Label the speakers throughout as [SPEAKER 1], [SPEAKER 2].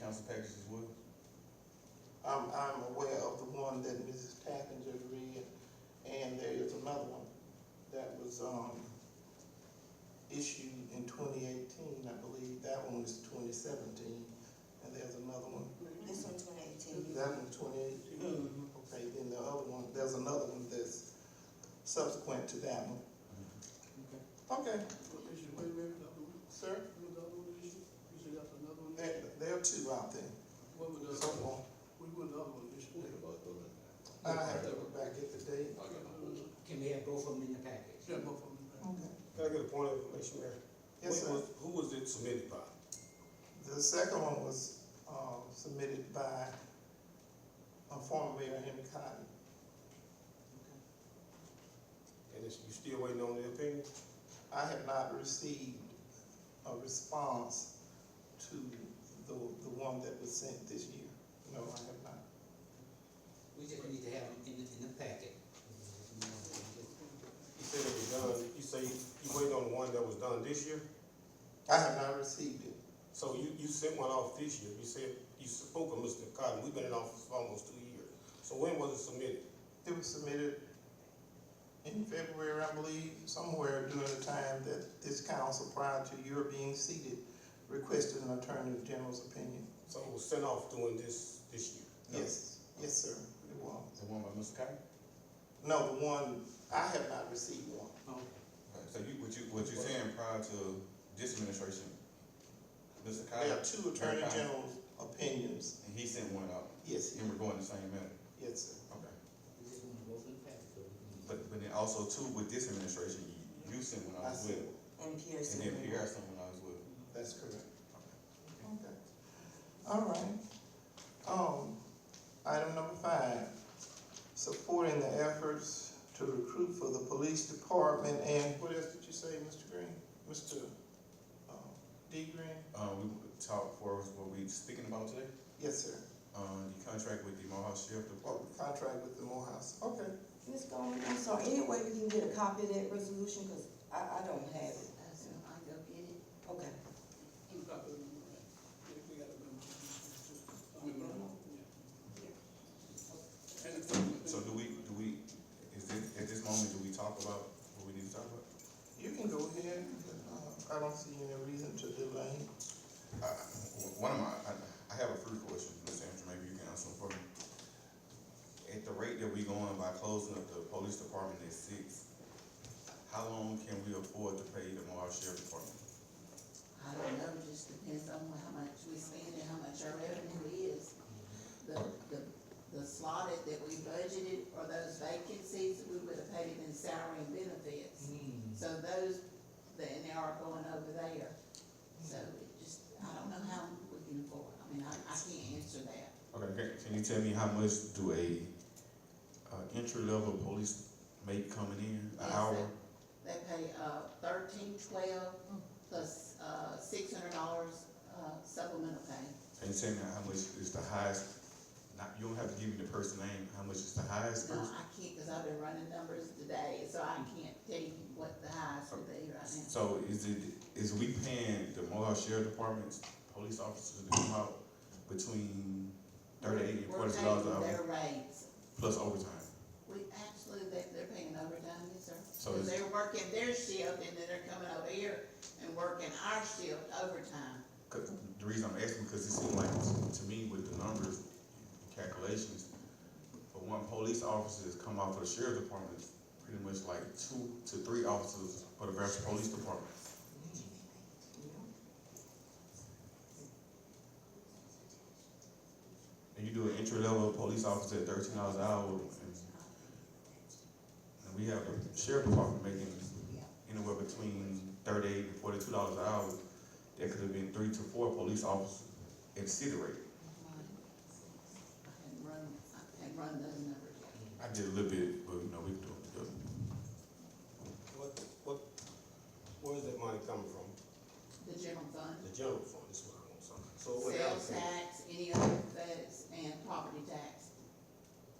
[SPEAKER 1] council package as well?
[SPEAKER 2] I'm, I'm aware of the one that Mrs. Tappan just read, and there is another one that was, um, issued in twenty eighteen, I believe, that one was twenty seventeen, and there's another one,
[SPEAKER 3] This one twenty eighteen.
[SPEAKER 2] that one twenty eighteen. Okay, then the other one, there's another one that's subsequent to that one. Okay,
[SPEAKER 4] wait a minute, that one,
[SPEAKER 2] sir,
[SPEAKER 4] that was the other one issue, you said that's another one?
[SPEAKER 2] there, there are two out there,
[SPEAKER 4] What was the,
[SPEAKER 2] so, um,
[SPEAKER 4] what was the other one issue?
[SPEAKER 2] I have to go back at the date.
[SPEAKER 5] Can we have both of them in the package?
[SPEAKER 4] Yeah, both of them. right?
[SPEAKER 2] Okay.
[SPEAKER 6] Can I get a point of information, Mayor?
[SPEAKER 2] Yes,
[SPEAKER 6] What
[SPEAKER 2] sir.
[SPEAKER 6] was- Who was it submitted by?
[SPEAKER 2] The second one was, um, submitted by a former mayor, Henry Cotton.
[SPEAKER 6] And it's, you still waiting on the opinion?
[SPEAKER 2] I have not received a response to the, the one that was sent this year. No, I have not.
[SPEAKER 5] We just need to have them in the, in the packet.
[SPEAKER 6] You said it was done, you say you waiting on the one that was done this year?
[SPEAKER 2] I have not received it.
[SPEAKER 6] So you, you sent one off this year, you said, you spoke of Mr. Cotton, we've been in office for almost two years. So when was it submitted?
[SPEAKER 2] It was submitted in February, I believe, somewhere during the time that this council, prior to your being seated, requested an attorney general's opinion.
[SPEAKER 6] So it was sent off during this, this year?
[SPEAKER 2] Yes, yes, sir, it was.
[SPEAKER 1] The one by Mr. Cotton?
[SPEAKER 2] No, the one, I have not received one.
[SPEAKER 1] Okay, So you, what you, what you saying prior to this administration, Mr.
[SPEAKER 2] There
[SPEAKER 1] Cotton,
[SPEAKER 2] are two attorney
[SPEAKER 1] Okay.
[SPEAKER 2] general's opinions.
[SPEAKER 1] and he sent one out,
[SPEAKER 2] Yes,
[SPEAKER 1] and we're going the same manner.
[SPEAKER 2] yes, sir.
[SPEAKER 1] Okay.
[SPEAKER 5] We just want both in the package, so we can.
[SPEAKER 1] But, but then also too, with this administration, you, you sent one out as Uh, well,
[SPEAKER 3] And
[SPEAKER 1] and
[SPEAKER 3] Pearson.
[SPEAKER 1] then Pierre sent one out as well.
[SPEAKER 2] That's correct. Okay. All right. Um, item number five, supporting the efforts to recruit for the police department and what else did you say, Mr. Green? Mr. um, D. Green?
[SPEAKER 1] Um, we talked for us what we speaking about today,
[SPEAKER 2] Yes, sir.
[SPEAKER 1] um, the contract with the Mohawk Sheriff
[SPEAKER 2] Oh,
[SPEAKER 1] Department.
[SPEAKER 2] contract with the Morehouse. Okay.
[SPEAKER 3] Ms. Goldman, I'm sorry, any way we can get a copy of that resolution, cause I, I don't have it. Okay.
[SPEAKER 4] Who got the number, right? Yeah, we got the number. I mean, yeah. And the third one,
[SPEAKER 1] So do we, do we, is this, at this moment, do we talk about what we need to talk about?
[SPEAKER 2] You can go ahead. Uh, I don't see any reason to delay.
[SPEAKER 1] Uh, One of my, I, I have a free question, Mr. Anderson, maybe you can answer it for me. At the rate that we going by closing up the police department at six, how long can we afford to pay the Moore Sheriff Department?
[SPEAKER 7] I don't know, just depends on how much we spend and how much our revenue is. The, the, the slotted that we budgeted for those vacancies, we would have paid in salary and benefits. So those, that, and they are going over there. So it just, I don't know how we can afford, I mean, I, I can't answer that.
[SPEAKER 1] Okay, can- can you tell me how much do a, uh, entry level police make coming in,
[SPEAKER 7] Yes,
[SPEAKER 1] an
[SPEAKER 7] sir.
[SPEAKER 1] hour?
[SPEAKER 7] They pay, uh, thirteen twelve plus, uh, six hundred dollars, uh, supplemental pay.
[SPEAKER 1] And tell me how much is the highest, not, you don't have to give me the person name, how much is the highest
[SPEAKER 7] No,
[SPEAKER 1] person?
[SPEAKER 7] I can't, cause I've been running numbers today, so I can't tell you what the highs would be right now.
[SPEAKER 1] So is it, is we paying the Mohawk Sheriff Department's police officers to come out between thirty-eight and forty dollars an
[SPEAKER 7] We're paying
[SPEAKER 1] hour
[SPEAKER 7] their rates.
[SPEAKER 1] plus overtime?
[SPEAKER 7] We actually, they, they're paying overtime, yes, sir.
[SPEAKER 1] So it's-
[SPEAKER 7] Because they're working their shift and then they're coming over here and working our shift overtime.
[SPEAKER 1] 'Cause the reason I'm asking, because it seemed like, to me, with the numbers, and calculations, for one police officer that's come out of the Sheriff Department, is pretty much like two to three officers for the Grafton Police Department. And you do an entry level police officer at thirteen dollars an hour, and, and we have the sheriff department making anywhere between thirty-eight and forty-two dollars an hour. There could have been three to four police officers at city rate.
[SPEAKER 7] I hadn't run, I hadn't run those numbers yet.
[SPEAKER 1] I did a little bit, but you know, we can do it together.
[SPEAKER 6] What, what, where's that money coming from?
[SPEAKER 7] The general fund,
[SPEAKER 6] The general fund, this is what I want, son. So what else?
[SPEAKER 7] sales tax, any other feds, and property tax,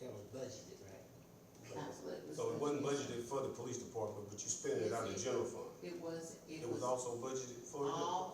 [SPEAKER 5] That was budgeted, right?
[SPEAKER 7] absolutely.
[SPEAKER 6] So it wasn't budgeted for the police department, but you spent it out of the general fund.
[SPEAKER 7] It was, it
[SPEAKER 6] It was
[SPEAKER 7] was
[SPEAKER 6] also budgeted for the.
[SPEAKER 7] all